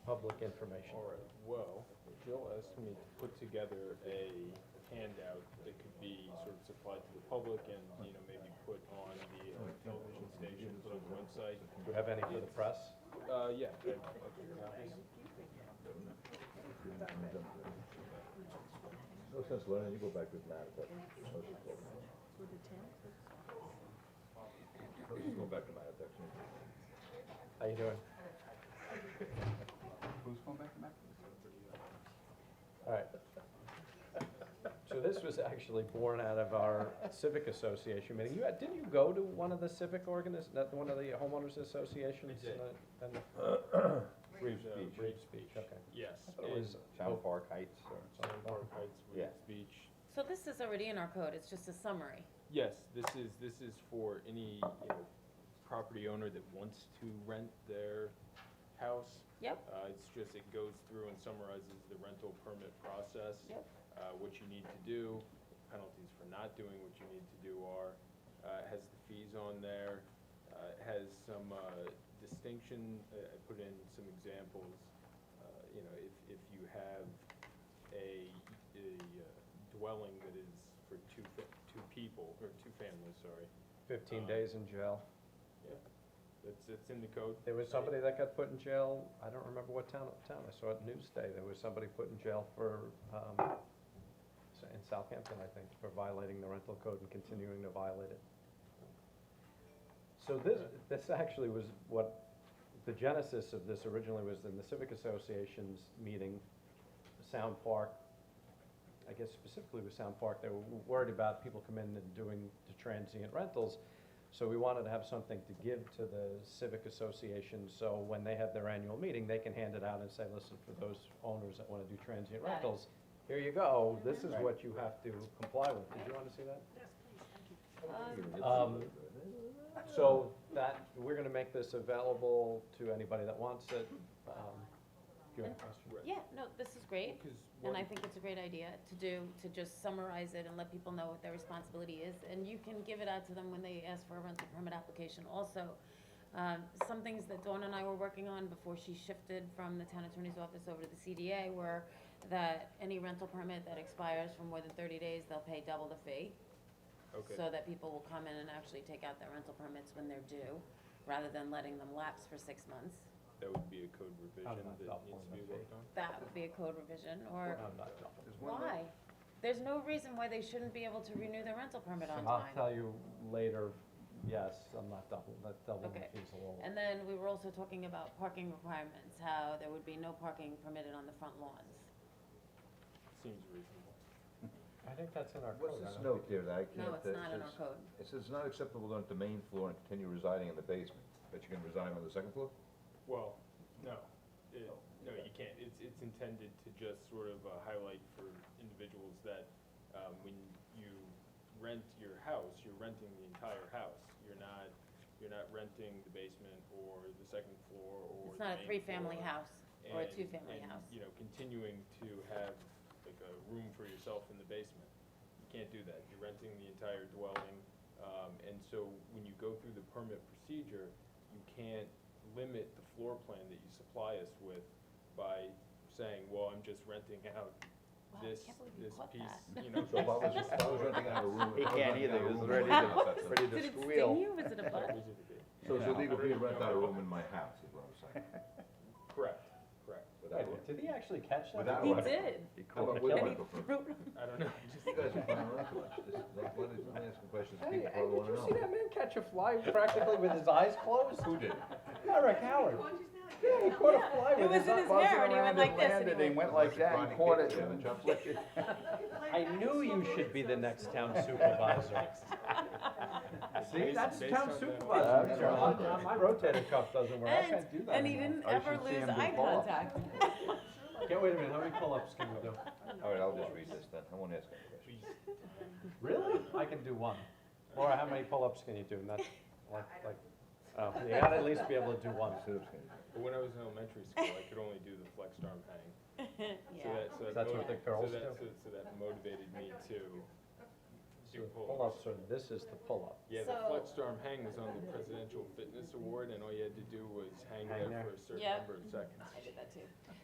public information. All right, well, Jill asked me to put together a handout that could be sort of supplied to the public and, you know, maybe put on the uh, television stations on the website. Do you have any for the press? Uh, yeah. I- I'll figure it out. No sense learning, you go back with Matt, but social program. Let's just go back to Matt, that's it. How you doing? Who's going back to Mac? All right. So this was actually born out of our civic association meeting. You, had- didn't you go to one of the civic organis, that, one of the homeowners associations? I did. And the- Reeves Beach. Reeves Beach. Okay. uh, Yes. and the, it was, Town Park Heights or something. Town Park Heights, Yeah. Reeves Beach. So this is already in our code, it's just a summary. Yes, this is, this is for any, you know, property owner that wants to rent their house. Yep. Uh, it's just, it goes through and summarizes the rental permit process. Yep. Uh, what you need to do, penalties for not doing what you need to do are, uh, it has the fees on there, uh, it has some, uh, distinction, uh, I put in some examples. Uh, you know, if, if you have a, a uh, dwelling that is for two, fa- two people, or two families, sorry, fifteen Um, days in jail. it's, it's in the code. There was somebody that got put in jail, I don't remember what town, town, I saw it Newsday, there was somebody put in jail for, um, s- in Southampton, I think, for violating the rental code and continuing to violate it. So this, this actually was what, the genesis of this originally was in the Civic Association's meeting, Sound Park, I guess specifically with Sound Park, they were worried about people coming in and doing the transient rentals, so we wanted to have something to give to the civic association, so when they have their annual meeting, they can hand it out and say, listen, for those owners that wanna do transient Got it. rentals, here you go, this is Right. what you have to comply with. Did you wanna see that? Um, Um, It's- So that, we're gonna make this available to anybody that wants it. Um, Do you have a question? Yeah, no, this is great, Because and I one- think it's a great idea to do, to just summarize it and let people know what their responsibility is. And you can give it out to them when they ask for a rental permit application also. Um, some things that Dawn and I were working on before she shifted from the town attorney's office over to the CDA were that any rental permit that expires for more than thirty days, they'll pay double the fee. Okay. so that people will come in and actually take out their rental permits when they're due, rather than letting them lapse for six months. That would be a code How revision did I that stop needs to one be of worked on. That would be a code revision, or I'm not done. There's one that- why? There's no reason why they shouldn't be able to renew their rental permit on I'll time. tell you later, yes, I'm not double, that double Okay. fees a little. And then we were also talking about parking requirements, how there would be no parking permitted on the front lawns. Seems reasonable. I think that's in our code. I What's this don't note here that Oh, I can't? No, it's that not in our says- code. It says it's not acceptable to rent the main floor and continue residing in the basement, but you can resign on the second floor? Well, no, it, no, you can't. It's, it's intended to just sort of uh, highlight for individuals that, um, when you rent your house, you're renting the entire house. You're not, you're not renting the basement or the second floor or It's the not a main three-family floor. house, or a And- two-family and, house. you know, continuing to have like a room for yourself in the basement. You can't do that. You're renting the entire dwelling. Um, and so when you go through the permit procedure, you can't limit the floor plan that you supply us with by saying, well, I'm just renting out Wow, I this, can't believe you this caught piece, that. you know. So if I was, if I was renting out a room. He if I was can't renting either, out he a was room, ready I'd to- not touch it. ready Did it sting you? Was it a bug? So it's Yeah. illegal for you to rent out a room in my house, is what I'm saying. Correct, correct. Without a- Wait, Did he actually catch that? Without a He rental. did. He How called about it. with And he rental? permit? threw it I don't know, just, You guys are finding out too much. This is- like, what is- I'm asking questions Hey, people hey, Oh, did probably you wanna know. see that man catch a fly practically with his eyes closed? Who did? Eric Howard. Yeah, he caught a fly It with was his in eyes. his hair, and he went around like this, and landed, he he went went, like that, and caught it. Yeah, the chopstick. I knew you should be the next town supervisor. See, Based- that's based town on that- supervisor. That's John. right. Uh, My rotator cuff doesn't work, I and, can't do that and he anymore. didn't I ever should see lose him do eye pull-ups. contact. Okay, wait a minute, how many pull-ups can we do? All right, I'll just read this then. I won't ask any questions. please, Really? I can do one. Laura, how many pull-ups can you do? Not, like, like, oh, you gotta at least be able to do one. Sit-ups can you do? But when I was in elementary school, I could only do the flexed arm hang. So Yeah. that, so that. That's what the motiv- girls so that- do. So so that motivated me So to do pull-ups. Pull-ups, or this is the pull-up. Yeah, the So- flexed arm hang was on the Presidential Fitness Award, and all you had to do was hang Hang there there. for a certain Yep. number of seconds. I did that too.